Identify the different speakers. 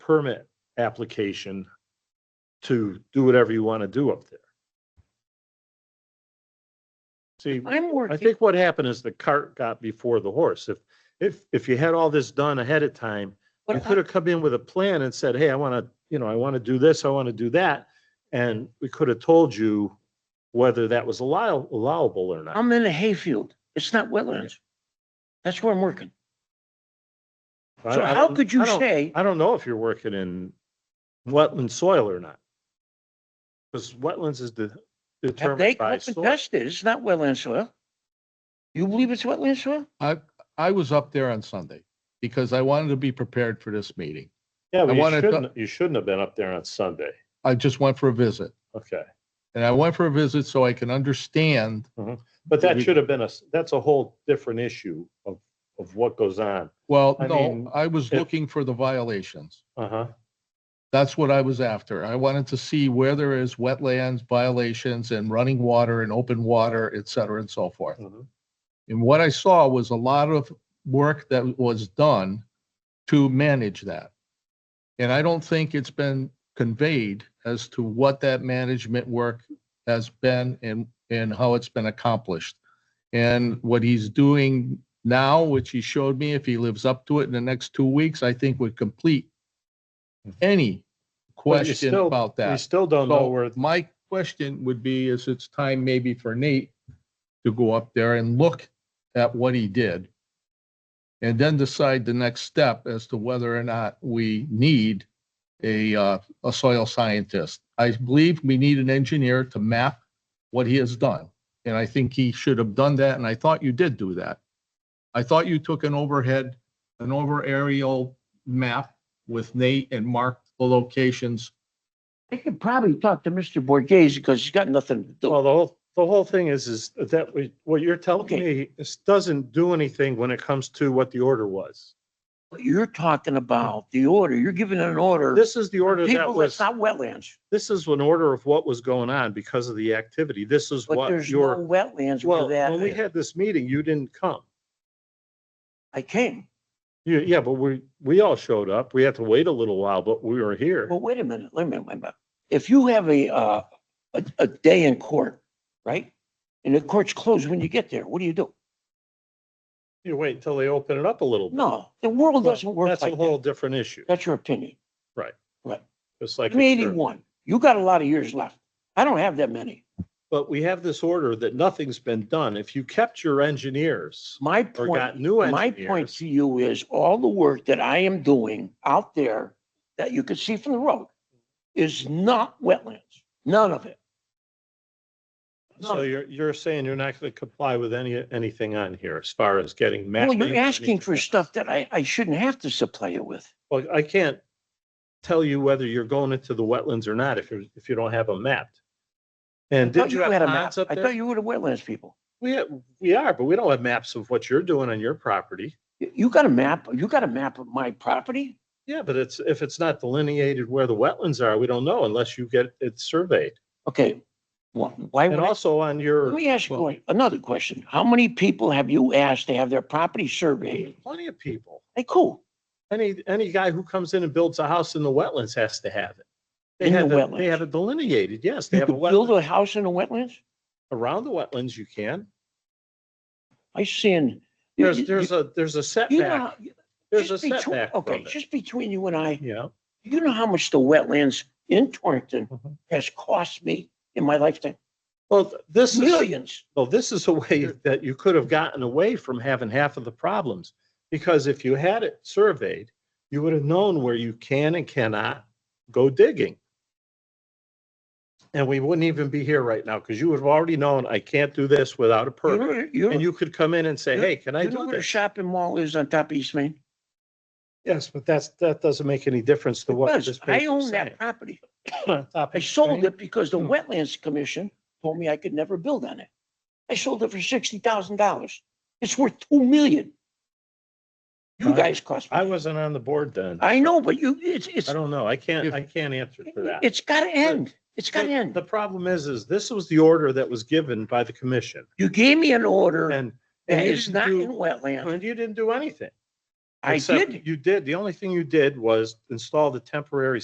Speaker 1: permit application to do whatever you want to do up there. See,
Speaker 2: I'm
Speaker 1: I
Speaker 2: working,
Speaker 1: think what happened is the cart got before the horse. If, if, if you had all this done ahead of time, you
Speaker 2: but
Speaker 1: could
Speaker 2: I-
Speaker 1: have come in with a plan and said, hey, I want to, you know, I want to do this, I want to do that. And we could have told you whether that was allow, allowable or not.
Speaker 2: I'm in a hayfield. It's not wetlands. That's where I'm working.
Speaker 1: I-
Speaker 2: So
Speaker 1: I
Speaker 2: how
Speaker 1: don't-
Speaker 2: could you
Speaker 1: I don't-
Speaker 2: say,
Speaker 1: I don't know if you're working in wetland soil or not. Because wetlands is de-
Speaker 2: have they
Speaker 1: determined
Speaker 2: come
Speaker 1: by
Speaker 2: up and
Speaker 1: soil.
Speaker 2: tested? It's not wetland soil? You believe it's wetland soil?
Speaker 3: I, I was up there on Sunday because I wanted to be prepared for this meeting.
Speaker 1: Yeah, but you
Speaker 3: wanted to-
Speaker 1: shouldn't, you shouldn't have been up there on Sunday.
Speaker 3: I just went for a visit
Speaker 1: Okay.
Speaker 3: and I went for a visit so I can understand.
Speaker 1: But that
Speaker 3: We-
Speaker 1: should have been a, s- that's a whole different issue of, of what goes on.
Speaker 3: Well,
Speaker 1: I mean,
Speaker 3: no, I was
Speaker 1: it-
Speaker 3: looking for the violations.
Speaker 1: Uh-huh.
Speaker 3: That's what I was after. I wanted to see where there is wetlands violations and running water and open water, et cetera, and so forth.
Speaker 1: Mhm.
Speaker 3: And what I saw was a lot of work that was done to manage that. And I don't think it's been conveyed as to what that management work has been and, and how it's been accomplished. And what he's doing now, which he showed me, if he lives up to it in the next two weeks, I think would complete any
Speaker 1: Mm-hmm. But you
Speaker 3: question
Speaker 1: still-
Speaker 3: about that.
Speaker 1: We still don't know
Speaker 3: So
Speaker 1: where,
Speaker 3: My question would be, is it's time maybe for Nate to go up there and look at what he did? And then decide the next step as to whether or not we need a, uh, a soil scientist. I believe we need an engineer to map what he has done. And I think he should have done that, and I thought you did do that. I thought you took an overhead, an over aerial map with Nate and marked the locations
Speaker 2: They could probably talk to Mr. Borghese because he's got nothing to do.
Speaker 1: well, the whole, the whole thing is, is that we- what you're telling
Speaker 2: Okay.
Speaker 1: me is doesn't do anything when it comes to what the order was.
Speaker 2: You're talking about the order. You're giving an order.
Speaker 1: This is the order that
Speaker 2: People, that's
Speaker 1: was,
Speaker 2: not wetlands,
Speaker 1: this is an order of what was going on because of the activity. This is
Speaker 2: but
Speaker 1: what
Speaker 2: there's no
Speaker 1: your,
Speaker 2: wetlands
Speaker 1: well,
Speaker 2: for
Speaker 1: when we
Speaker 2: that.
Speaker 1: had this meeting, you didn't come.
Speaker 2: I came.
Speaker 1: Yeah, yeah, but we, we all showed up. We had to wait a little while, but we were here.
Speaker 2: Well, wait a minute, wait a minute, wait a minute. If you have a, uh, a, a day in court, right? And the court's closed when you get there, what do you do?
Speaker 1: You wait until they open it up a little. bit.
Speaker 2: No, the world
Speaker 1: Well,
Speaker 2: doesn't work
Speaker 1: That's a
Speaker 2: like
Speaker 1: whole
Speaker 2: that.
Speaker 1: different issue.
Speaker 2: That's your opinion.
Speaker 1: It's like,
Speaker 2: I'm eighty-one. You got a lot of years left. I don't have that many.
Speaker 1: but we have this order that nothing's been done. If you kept your engineers
Speaker 2: My
Speaker 1: or
Speaker 2: point,
Speaker 1: got new
Speaker 2: my point
Speaker 1: engineers.
Speaker 2: to you is all the work that I am doing out there that you can see from the road is not wetlands, none of it.
Speaker 1: So you're, you're saying you're not going to comply with any, anything on here as far as getting
Speaker 2: Well,
Speaker 1: mapping?
Speaker 2: you're
Speaker 1: or
Speaker 2: asking for
Speaker 1: anything?
Speaker 2: stuff that I, I shouldn't have to supply you with.
Speaker 1: Well, I can't tell you whether you're going into the wetlands or not if you're, if you don't have them mapped. And
Speaker 2: thought
Speaker 1: did you
Speaker 2: had
Speaker 1: have
Speaker 2: a map.
Speaker 1: maps up
Speaker 2: I thought
Speaker 1: there?
Speaker 2: you were the wetlands people.
Speaker 1: We, ha- we are, but we don't have maps of what you're doing on your property.
Speaker 2: You you got a map, you got a map of my property?
Speaker 1: Yeah, but it's, if it's not delineated where the wetlands are, we don't know unless you get it surveyed.
Speaker 2: Okay, why, why would
Speaker 1: And
Speaker 2: I?
Speaker 1: also on
Speaker 2: Let
Speaker 1: your,
Speaker 2: me ask
Speaker 3: Well-
Speaker 2: you another question. How many people have you asked to have their property surveyed?
Speaker 1: plenty of people,
Speaker 2: Hey, cool.
Speaker 1: any, any guy who comes in and builds a house in the wetlands has to have it. They
Speaker 2: In the
Speaker 1: have, it- they
Speaker 2: wetlands.
Speaker 1: have it delineated, yes, they
Speaker 2: You
Speaker 1: have a
Speaker 2: could build
Speaker 1: wetland,
Speaker 2: a house in the wetlands?
Speaker 1: around the wetlands you can.
Speaker 2: I seen. you-
Speaker 1: There's,
Speaker 2: you-
Speaker 1: there's a, there's a
Speaker 2: you know how-
Speaker 1: setback, there's a
Speaker 2: just between-
Speaker 1: setback from
Speaker 2: Okay,
Speaker 1: it,
Speaker 2: just between you and I,
Speaker 1: you know?
Speaker 2: you know how much the wetlands in Torrington
Speaker 1: Mhm.
Speaker 2: has cost me in my lifetime?
Speaker 1: Well, th- this is,
Speaker 2: Millions.
Speaker 1: well, this is a way that you could have gotten away from having half of the problems. Because if you had it surveyed, you would have known where you can and cannot go digging. And we wouldn't even be here right now because you would have already known, I can't do this without a
Speaker 2: You
Speaker 1: permit.
Speaker 2: know- you know-
Speaker 1: And you could come in and say,
Speaker 2: you-
Speaker 1: hey, can I
Speaker 2: you know
Speaker 1: do
Speaker 2: where the
Speaker 1: this?
Speaker 2: shopping mall is on top of East Main?
Speaker 1: Yes, but that's, that doesn't make any difference to what
Speaker 2: Because
Speaker 1: this
Speaker 2: I
Speaker 1: paper
Speaker 2: own
Speaker 1: is
Speaker 2: that
Speaker 1: saying.
Speaker 2: property. I
Speaker 1: I
Speaker 2: sold it because the
Speaker 1: Hmm.
Speaker 2: Wetlands Commission told me I could never build on it. I sold it for sixty thousand dollars. It's worth two million. You
Speaker 1: Right.
Speaker 2: guys cost
Speaker 1: I
Speaker 2: me.
Speaker 1: wasn't on the board then.
Speaker 2: I know, but you, it's, it's,
Speaker 1: I don't know. I can't,
Speaker 3: If-
Speaker 1: I can't answer for that.
Speaker 2: it's gotta end. It's gotta
Speaker 1: The-
Speaker 2: end.
Speaker 1: The problem is, is this was the order that was given by the commission
Speaker 2: You gave me an order
Speaker 1: and. and
Speaker 2: that
Speaker 1: you
Speaker 2: is
Speaker 1: didn't
Speaker 2: not
Speaker 1: do-
Speaker 2: in wetland.
Speaker 1: And you didn't do anything.
Speaker 2: I
Speaker 1: Except
Speaker 2: did.
Speaker 1: You did. The only thing you did was install the temporary